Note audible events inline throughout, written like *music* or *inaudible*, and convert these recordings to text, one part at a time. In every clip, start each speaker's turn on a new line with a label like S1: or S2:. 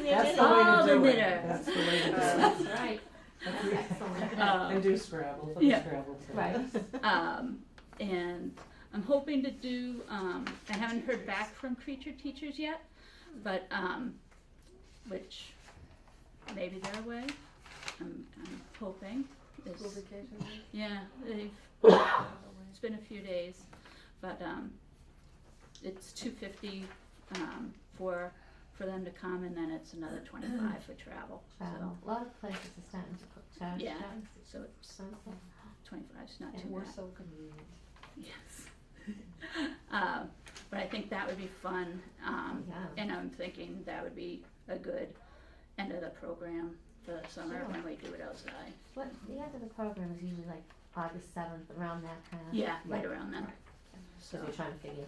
S1: That's the
S2: minute.
S1: way
S3: Oh,
S1: to
S3: the
S1: do it.
S3: knitter.
S1: Um, *laughs* That's the way to do it.
S3: That's right.
S1: And
S3: Um,
S1: do Scrabble, put the
S3: yeah.
S1: Scrabble thing. *laughs*
S4: Right.
S3: um, and I'm hoping to do, um, I haven't heard back from creature teachers yet, but, um, which maybe they're away. I'm, I'm hoping. There's-
S2: School vacation.
S3: Yeah, they've, it's been a few days, but, um, it's two fifty, um, for, for them to come and then it's another twenty-five for travel. So,
S4: Travel. Uh, A lot of places are starting to put charge
S3: Yeah.
S4: down.
S3: So it's
S4: Sunset.
S3: twenty-five's not
S4: And
S3: too
S2: We're
S3: bad.
S2: so convenient.
S3: Yes. *laughs* Um, but I think that would be fun, um,
S4: Yeah.
S3: and I'm thinking that would be a good end of the program for the summer
S4: Sure.
S3: when we do it outside.
S4: What, the end of the program is usually like August seventh, around that kind of.
S3: Yeah, right around then,
S4: Right.
S3: so,
S4: So we're trying to figure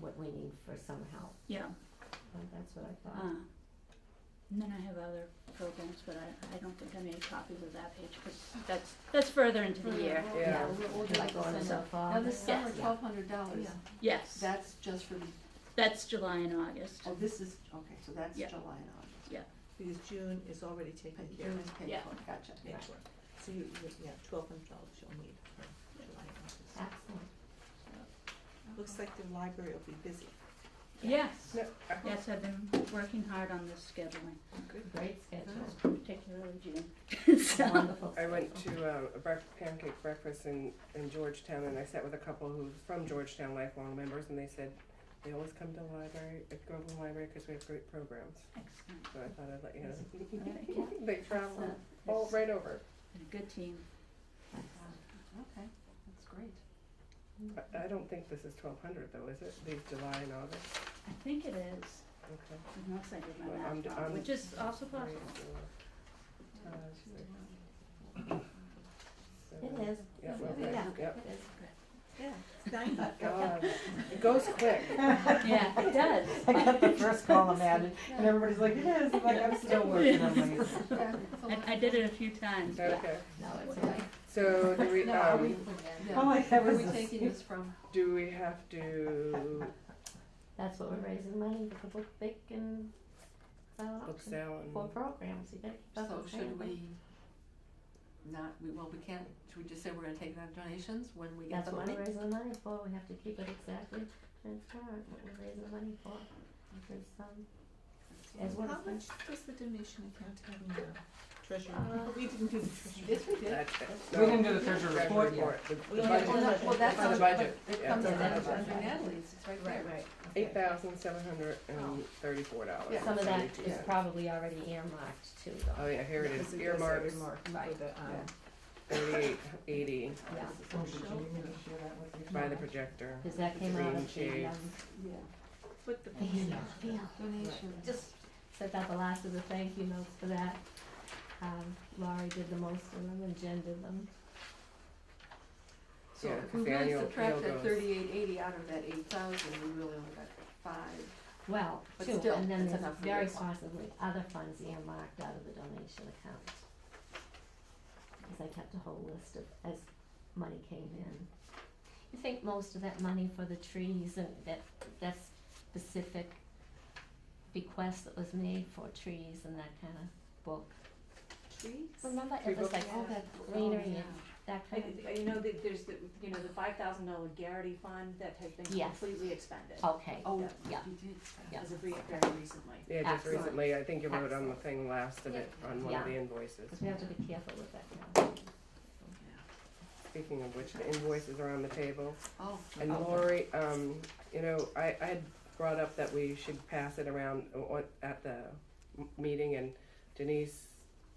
S4: what we need for some help.
S3: yeah,
S4: Well, That's what I thought.
S3: uh, and then I have other programs, but I, I don't think I made copies of that page, cause that's, that's further into the year,
S2: Yeah.
S4: Yeah,
S2: we'll- we'll do
S4: like
S2: it
S4: going
S2: this
S4: in
S2: summer.
S4: the fall.
S2: Now, this summer,
S3: Yes.
S2: twelve hundred dollars,
S3: yes,
S2: that's just for, the
S3: that's July and August,
S2: oh, this is, okay, so that's July
S3: Yeah.
S2: and August.
S5: Because June is already taken
S2: But
S5: care
S2: June
S5: of.
S2: is paid
S3: Yeah.
S2: for, gotcha.
S5: Yeah. So you, you- yeah, twelve hundred dollars you'll need for July and August.
S4: Excellent.
S5: Looks like the library will be busy.
S3: yes,
S5: Yeah.
S3: yes, I've been working hard on this scheduling,
S4: Great schedule.
S3: particularly June, *laughs* so.
S4: Wonderful.
S6: I went
S4: schedule.
S6: to um, a brec- pancake breakfast in, in Georgetown, and I sat with a couple who's from Georgetown, lifelong members, and they said they always come to the library, at Groveland Library, because we have great programs.
S3: Excellent.
S6: So I thought I'd let you
S3: Thank
S6: know.
S3: you.
S6: *laughs* they travel
S3: Excellent.
S6: all
S3: It's
S6: right over.
S3: been a good team.
S2: Okay, that's great.
S6: I- I don't think this is 1200 though, is it? These July and August.
S3: I think it is,
S6: Okay.
S3: unless I did
S6: Well,
S3: my
S6: I'm-
S3: math wrong,
S6: I'm-
S3: which is also possible.
S6: Three, four, five, six, seven.
S4: It is.
S6: Yeah, well,
S4: Yeah,
S6: right,
S4: it
S6: yep.
S4: is.
S5: Yeah, it's nine.
S6: God, it goes quick.
S5: *laughs*
S3: Yeah, it does.
S1: I got *laughs* the first column added, and everybody's like, it is, I'm like, I'm still working on
S4: *laughs*
S1: my.
S2: Yeah, it's a
S3: *laughs* I,
S2: lot
S3: I
S2: of
S3: did
S2: fun.
S3: it a few times, but
S6: Okay.
S4: No, it's like, *laughs*
S6: So do we?
S4: no,
S6: um,
S4: are we,
S2: Yeah.
S1: Oh, my God,
S2: Where are
S1: was
S2: we
S1: this-
S2: taking this from?
S6: Do we have to
S4: *laughs* that's what we're raising money for the book big and silent
S6: book
S4: auction
S6: sale
S4: for
S6: and
S4: programs. You better keep up
S2: So
S4: with the
S2: should
S4: program.
S2: we not, we, well, we can't, should we just say we're gonna take it out of donations when we get
S4: That's
S2: the
S4: what
S2: money?
S4: we're raising the money for, we have to keep it exactly transparent, what we're raising the money for. Because, um, as well
S5: How
S4: as
S5: much
S4: the-
S5: does the donation account have now? Treasurer.
S4: Uh,
S5: We didn't do the treasurer.
S2: Yes, we did.
S6: that's it.
S1: We didn't do the treasure
S6: Treasury
S1: report yet.
S6: report, the- the
S5: We only have
S6: budget.
S5: one
S2: Well, that- well, that's
S6: It's on
S2: on
S6: the
S2: but
S6: budget.
S2: It
S6: Yeah,
S2: comes
S6: it's
S2: in
S6: on the
S2: under
S6: budget.
S2: under Natalie's, it's right there.
S5: right. okay.
S6: Eight thousand seven hundred and thirty-four dollars.
S4: some of that is probably already earmarked too,
S6: Oh
S2: Uh,
S4: though.
S6: yeah, here it
S5: Because
S6: is,
S5: does
S6: earmarks,
S5: earmark for
S4: Right.
S5: the, um,
S2: Yeah.
S6: thirty-eight eighty
S4: Yeah,
S1: Oh, did you need me to share that with you?
S6: by the projector.
S4: cause that came out of
S6: Green
S4: the, um, *laughs*
S2: Yeah,
S5: Put the.
S4: the email, yeah.
S2: donations.
S4: Just sent out the last of the thank you notes for that. Um, Laurie did the most of them and Jen did them.
S2: So
S6: Yeah,
S2: if
S6: 'cause
S2: we
S6: the
S2: really
S6: annual
S2: subtract
S6: appeal
S2: that
S6: goes-
S2: thirty-eight eighty out of that eight thousand, we really only got five.
S4: Well,
S2: But
S4: two,
S2: still,
S4: and then
S2: that's
S4: there's
S2: enough for
S4: very
S2: this one.
S4: possibly other funds earmarked out of the donation account. Cause I kept a whole list of, as money came in. You think most of that money for the trees and that, that specific bequest that was made for trees and that kind of book?
S2: Trees?
S4: Remember,
S6: Tree
S4: it was
S6: book?
S4: like,
S2: Yeah.
S4: oh, that
S2: Oh,
S4: greenery and
S2: yeah.
S4: that kind of,
S7: Like, You know, that there's the, you know, the five thousand dollar Garrity fund that has been
S4: Yes.
S7: completely expended
S4: okay,
S2: Oh,
S7: Yeah.
S4: Yeah.
S2: you did.
S4: Yeah.
S7: as of re- very recently.
S6: Yeah, just
S4: Excellent.
S6: recently, I think you wrote on the
S4: Excellent.
S6: thing last of it, on one
S4: Yeah.
S6: of the invoices.
S4: cause we have to be careful with that kind of thing.
S6: Speaking of which, the invoices are on the table.
S2: Oh.
S6: And
S2: okay.
S6: Lori, um, you know, I, I had brought up that we should pass it around o- o- at the m- meeting and Denise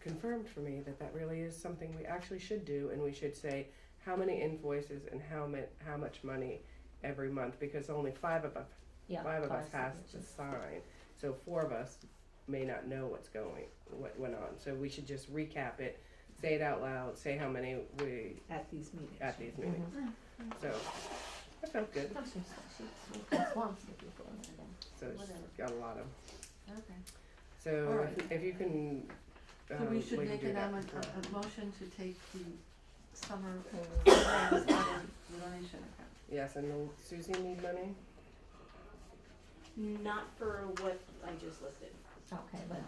S6: confirmed for me that that really is something we actually should do and we should say how many invoices and how ma- how much money every month because only five of us,
S4: Yeah.
S6: five of us
S4: cost,
S6: has
S4: which
S6: to
S4: is-
S6: sign. So four of us may not know what's going, what went on. So we should just recap it, say it out loud, say how many we,
S5: At these meetings.
S6: at these meetings.
S4: Mhm.
S6: So, that felt good.
S4: Some she's- she's- that's one of the people in there, yeah.
S6: So it's
S2: Whatever.
S6: got a lot of.
S2: Okay. All
S6: So
S2: right.
S6: if, if you can.
S2: So we
S6: um,
S2: should
S6: can
S2: make
S6: do
S2: an,
S6: that
S2: amendment-
S6: tomorrow.
S2: a, a motion to take the summer *coughs* programs out of the donation account.
S6: Yes, and will Susie need money?
S7: Not for what I just listed.
S4: Okay, but